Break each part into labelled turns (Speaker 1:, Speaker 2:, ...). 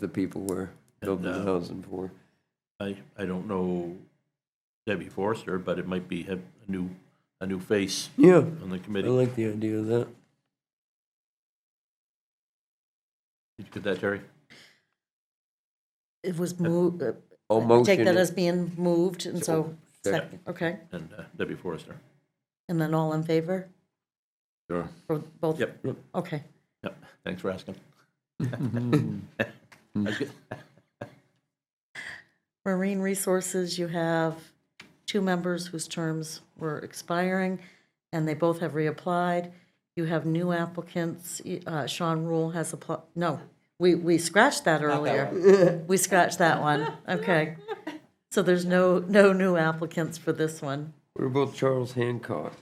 Speaker 1: the people were building the
Speaker 2: uh,
Speaker 1: housing for.
Speaker 2: I, I don't know Debbie Forrester, but it might be have a new, a new face
Speaker 1: Yeah,
Speaker 2: on the
Speaker 1: I
Speaker 2: committee.
Speaker 1: like the idea of that.
Speaker 2: Did you get that, Terry?
Speaker 3: It was moved, uh,
Speaker 1: I'll
Speaker 3: take
Speaker 1: Oh, motion
Speaker 3: that as
Speaker 1: it.
Speaker 3: being moved, and so,
Speaker 1: Second.
Speaker 3: sec- okay,
Speaker 2: And uh, Debbie Forrester.
Speaker 3: and then all in favor?
Speaker 2: Sure.
Speaker 3: For both?
Speaker 2: Yep.
Speaker 3: Okay,
Speaker 2: Yep, thanks for asking. I get-
Speaker 3: Marine Resources, you have two members whose terms were expiring, and they both have reapplied. You have new applicants, Uh, Sean Rule has applied, no, we, we scratched that earlier. We scratched that one, okay. So there's no, no new applicants for this one.
Speaker 1: What about Charles Hancock?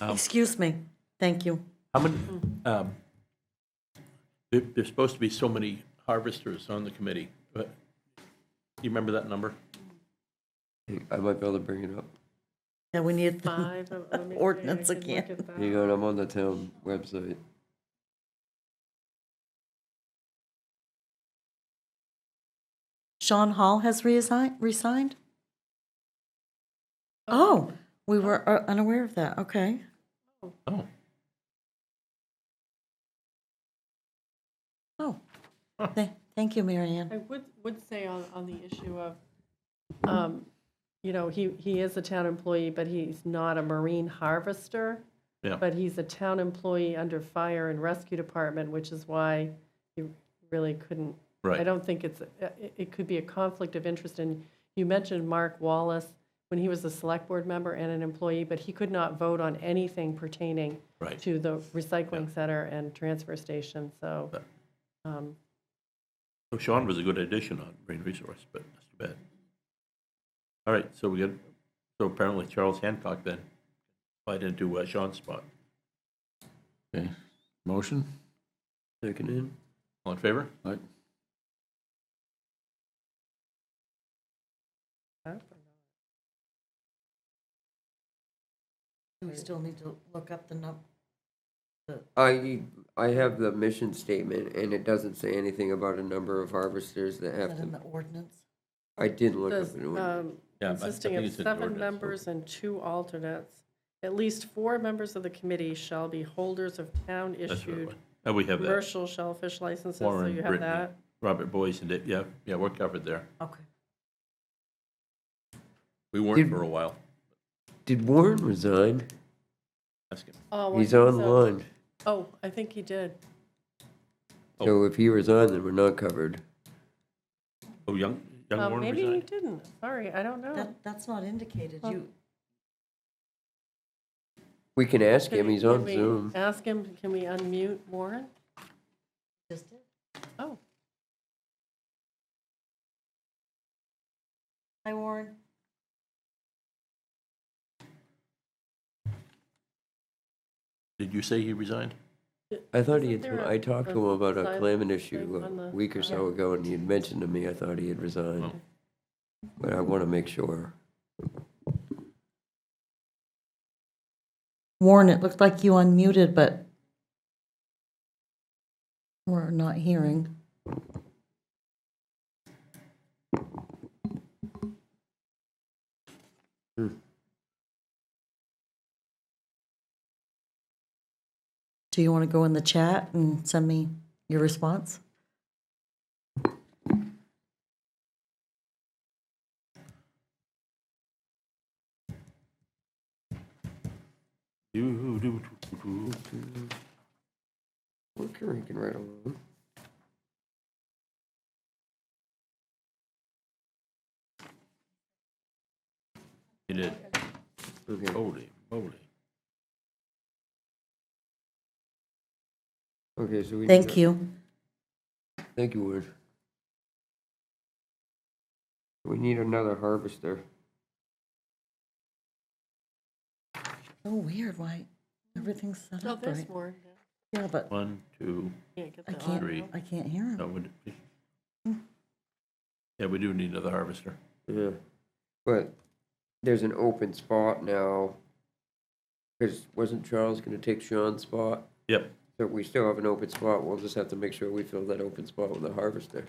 Speaker 3: Excuse me, thank you.
Speaker 2: How many, um, there, there's supposed to be so many harvesters on the committee, but you remember that number?
Speaker 1: I might be able to bring it up.
Speaker 3: Yeah, we need the
Speaker 4: five. um, let me see, I
Speaker 3: ordinance
Speaker 4: can look
Speaker 3: again.
Speaker 4: at that.
Speaker 1: Hang on, I'm on the town website.
Speaker 3: Sean Hall has resigned, resigned? Oh, we were uh, unaware of that, okay.
Speaker 2: Oh,
Speaker 3: Oh, Tha- thank you, Marianne.
Speaker 4: I would, would say on, on the issue of, um, you know, he, he is a town employee, but he's not a marine harvester.
Speaker 2: Yeah.
Speaker 4: But he's a town employee under fire and rescue department, which is why he really couldn't. I
Speaker 2: right.
Speaker 4: don't think it's, uh, it, it could be a conflict of interest. And you mentioned Mark Wallace, when he was a select board member and an employee, but he could not vote on anything pertaining
Speaker 2: Right.
Speaker 4: to the recycling center and transfer station, so.
Speaker 2: Yeah.
Speaker 4: um,
Speaker 2: So Sean was a good addition on Marine Resource, but that's too bad. All right, so we got, so apparently Charles Hancock then applied into uh, Sean's spot.
Speaker 5: Okay, motion?
Speaker 1: Seconded.
Speaker 2: All in favor?
Speaker 5: Aye.
Speaker 3: We still need to look up the number.
Speaker 1: I, I have the mission statement and it doesn't say anything about a number of harvesters that have
Speaker 3: in
Speaker 1: to,
Speaker 3: the ordinance?
Speaker 1: I did look
Speaker 4: Does,
Speaker 1: up. an order.
Speaker 4: um,
Speaker 2: Yeah, I
Speaker 4: Consisting
Speaker 2: think
Speaker 4: of
Speaker 2: it's in the
Speaker 4: seven
Speaker 2: ordinance.
Speaker 4: members and two alternates. At least four members of the committee shall be holders of
Speaker 2: That's what it
Speaker 4: town-issued
Speaker 2: was. Oh, we have that.
Speaker 4: commercial shellfish licenses, so
Speaker 2: Warren,
Speaker 4: you have
Speaker 2: Brittany,
Speaker 4: that.
Speaker 2: Robert Boyce and, Dave- yeah, yeah, we're covered there.
Speaker 3: Okay.
Speaker 2: We
Speaker 1: Did-
Speaker 2: weren't for a while.
Speaker 1: Did Warren resign?
Speaker 2: Ask him.
Speaker 4: Oh, well,
Speaker 1: He's
Speaker 4: so-
Speaker 1: online.
Speaker 4: Oh, I think he did.
Speaker 1: So if he resigned, then we're not covered.
Speaker 2: Oh, Young, Young
Speaker 4: Um,
Speaker 2: Warren
Speaker 4: Maybe he
Speaker 2: resigned?
Speaker 4: didn't, sorry, I don't know.
Speaker 3: That, that's not indicated. You,
Speaker 1: We can ask him, he's on
Speaker 4: Can we
Speaker 1: Zoom.
Speaker 4: Ask him, can we unmute Warren?
Speaker 3: just did.
Speaker 4: Oh,
Speaker 3: Hi, Warren.
Speaker 2: Did you say he resigned?
Speaker 1: I thought he
Speaker 4: Isn't
Speaker 1: had,
Speaker 4: there
Speaker 1: I
Speaker 4: a-
Speaker 1: talked to him about a
Speaker 4: sign
Speaker 1: climate
Speaker 4: thing
Speaker 1: issue
Speaker 4: on
Speaker 1: a
Speaker 4: the-
Speaker 1: week or so ago, and he had mentioned to me, I thought he had resigned.
Speaker 2: Oh.
Speaker 1: But I want to make sure.
Speaker 3: Warren, it looked like you unmuted, but we're not hearing. Do you want to go in the chat and send me your response?
Speaker 1: We're cranking right along.
Speaker 2: He did.
Speaker 1: Okay.
Speaker 2: Holy moly.
Speaker 1: Okay, so we.
Speaker 3: Thank you.
Speaker 1: Thank you, Ward. We need another harvester.
Speaker 3: So Oh, weird, why everything's set
Speaker 4: no,
Speaker 3: up
Speaker 4: Oh, there's
Speaker 3: right?
Speaker 4: Warren.
Speaker 3: Yeah, but
Speaker 2: One, two,
Speaker 4: Can't get
Speaker 3: I
Speaker 4: the audio.
Speaker 3: can't, I can't hear him.
Speaker 2: no, we- yeah, we do need another harvester.
Speaker 1: Yeah. But there's an open spot now. Because wasn't Charles going to take Sean's spot?
Speaker 2: Yep,
Speaker 1: So we still have an open spot, we'll just have to make sure we fill that open spot with a harvester.